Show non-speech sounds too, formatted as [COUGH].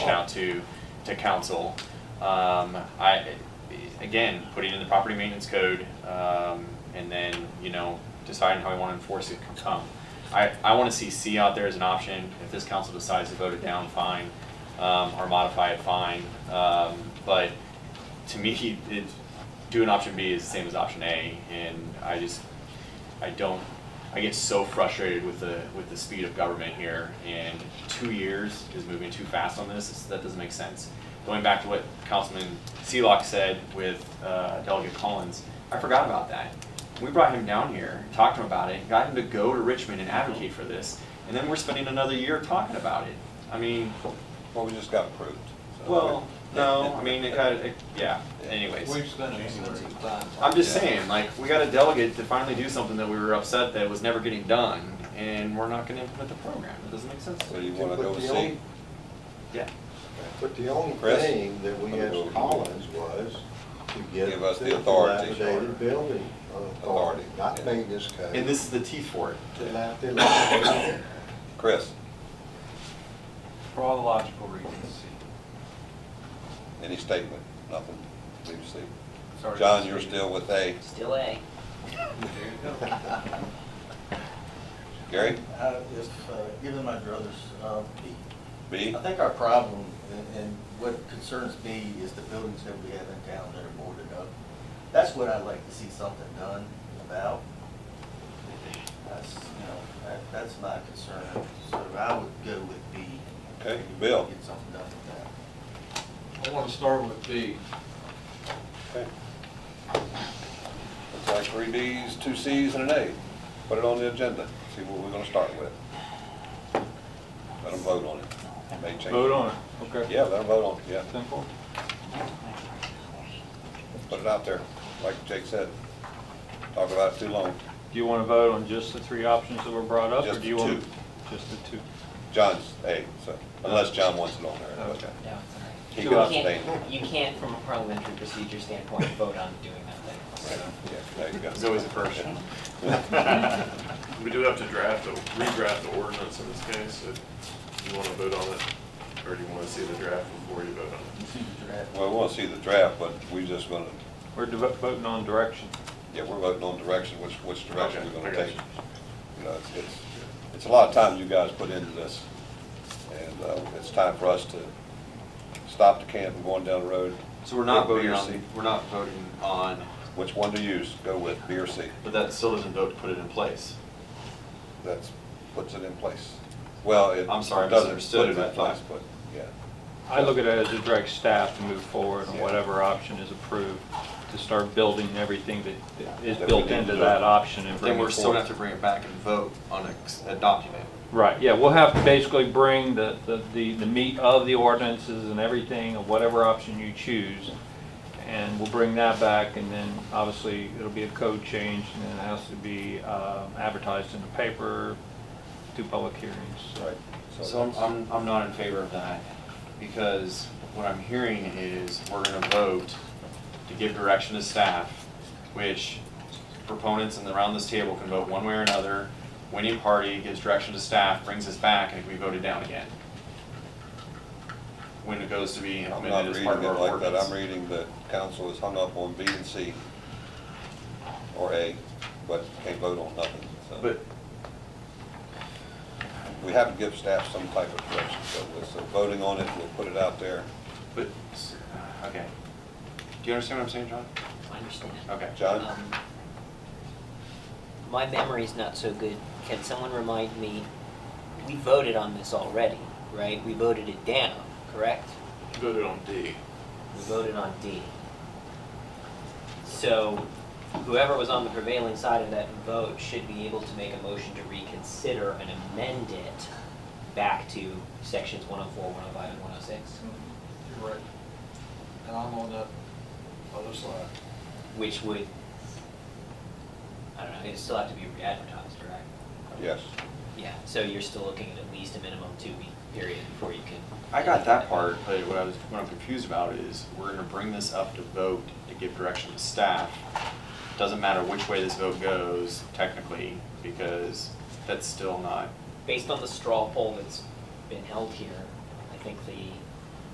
out to, to council. Um, I, again, putting in the property maintenance code, um, and then, you know, deciding how we wanna enforce it can come. I, I wanna see C out there as an option, if this council decides to vote it down, fine, um, or modify it, fine. Um, but to me, it, doing option B is the same as option A, and I just, I don't, I get so frustrated with the, with the speed of government here, and two years is moving too fast on this, it's- that doesn't make sense. Going back to what Councilman Seelock said with, uh, Delegate Collins, I forgot about that. We brought him down here, talked to him about it, got him to go to Richmond and advocate for this, and then we're spending another year talking about it. I mean, Well, we just got approved. so- well, [LAUGHS] [LAUGHS] no, I mean, it kind of, yeah, anyways. We've spent an extensive time. I'm just saying, like, we got a delegate to finally do something that we were upset that was never getting done, and we're not gonna implement the program, it doesn't make sense. So you wanna go Put see? the old- Yeah, But the only Chris? thing that we asked Collins was to give Give us the authority. dilapidated building Authority, authority, not yeah. maintenance code. and this is the T for it. [LAUGHS] Dilap- dilapidated. [LAUGHS] Chris, For all the logical reasons. any statement? Nothing? Leave seat. Sorry. John, you're still with A. Still A. There you go. [LAUGHS] Gary, Uh, If, uh, given my druthers, uh, B. B? I think our problem, and- and what concerns me, is the buildings that we have in town that are boarded up. That's what I'd like to see something done about. That's, you know, that- that's my concern, so I would go with B. Okay, Bill. Get something done with that. I want to start with B. Okay. Looks like three Ds, two Cs, and an A. Put it on the agenda, see what we're gonna start with. Let them vote on it. May change. Vote on it, okay. Yeah, let them vote on it, yeah. Simple. Put it out there, like Jake said. Talk about it too long. Do you want to vote on just the three options that were brought up? or Just do you the want two. Just the two. John's A, so, unless John wants it on there. but Okay. No, it's He all can right. You can't, abstain. you can't, from a parliamentary procedure standpoint, vote on doing that later. Yeah, So, there you go. There's always a first. We do have to draft, a- redraft the ordinance in this case, if you want to vote on it, or do you want to see the draft before you vote on it? You see the draft? [LAUGHS] Well, we want to see the draft, but we just gonna, We're devo- voting on direction. yeah, we're voting on direction, which, which direction we're gonna Okay, I got take. you. You know, it's, it's, it's a lot of time you guys put into this, and, uh, it's time for us to stop the camp and going down the road. So we're not Pick B voting or on, C. we're not voting on, Which one to use, go with, B or C, but that still doesn't vote to put it in place. that's, puts it in place. Well, it I'm sorry, I doesn't misunderstood put it in that thought. place, But, yeah, I look at it as to direct staff to move forward on Yeah. whatever option is approved, to start building everything that- that is That we built need into to do. that option and bring Then it we're forward. still gonna have to bring it back and vote on a, a document. Right, yeah, we'll have to basically bring the, the- the, the meat of the ordinances and everything, of whatever option you choose. And we'll bring that back, and then obviously it'll be a code change, and then it has to be uh, advertised in the paper, two public hearings. right. So I'm, that's- I'm, I'm not in favor of that, because what I'm hearing is we're gonna vote to give direction to staff, which proponents and around this table can vote one way or another. Winning party gives direction to staff, brings us back, and we voted down again. When it goes to be I'm not implemented as reading part of it our like that, ordinance. I'm reading that council is hung up on B and C, or A, but can't vote on nothing, so. But, We have to give staff some type of direction, so we're, so voting on it, we'll put it out there. but, okay. Do you understand what I'm saying, John? I understand. Okay. John? Um, My memory's not so good. Can someone remind me, we voted on this already, right? We voted it down, correct? You Voted on D. We voted on D. So whoever was on the prevailing side of that vote should be able to make a motion to reconsider and amend it back to sections 104, 105, and 106, You're right. And I'm on the other side. which would, I don't know, it'd still have to be re-advertised, right? Yes, Yeah, so you're still looking at at least a minimum two-week period before you can, I got that part, but what I was, what I'm confused about is, we're gonna bring this up to vote to give direction to staff. Doesn't matter which way this vote goes technically, because that's still not, based on the straw poll that's been held here, I think the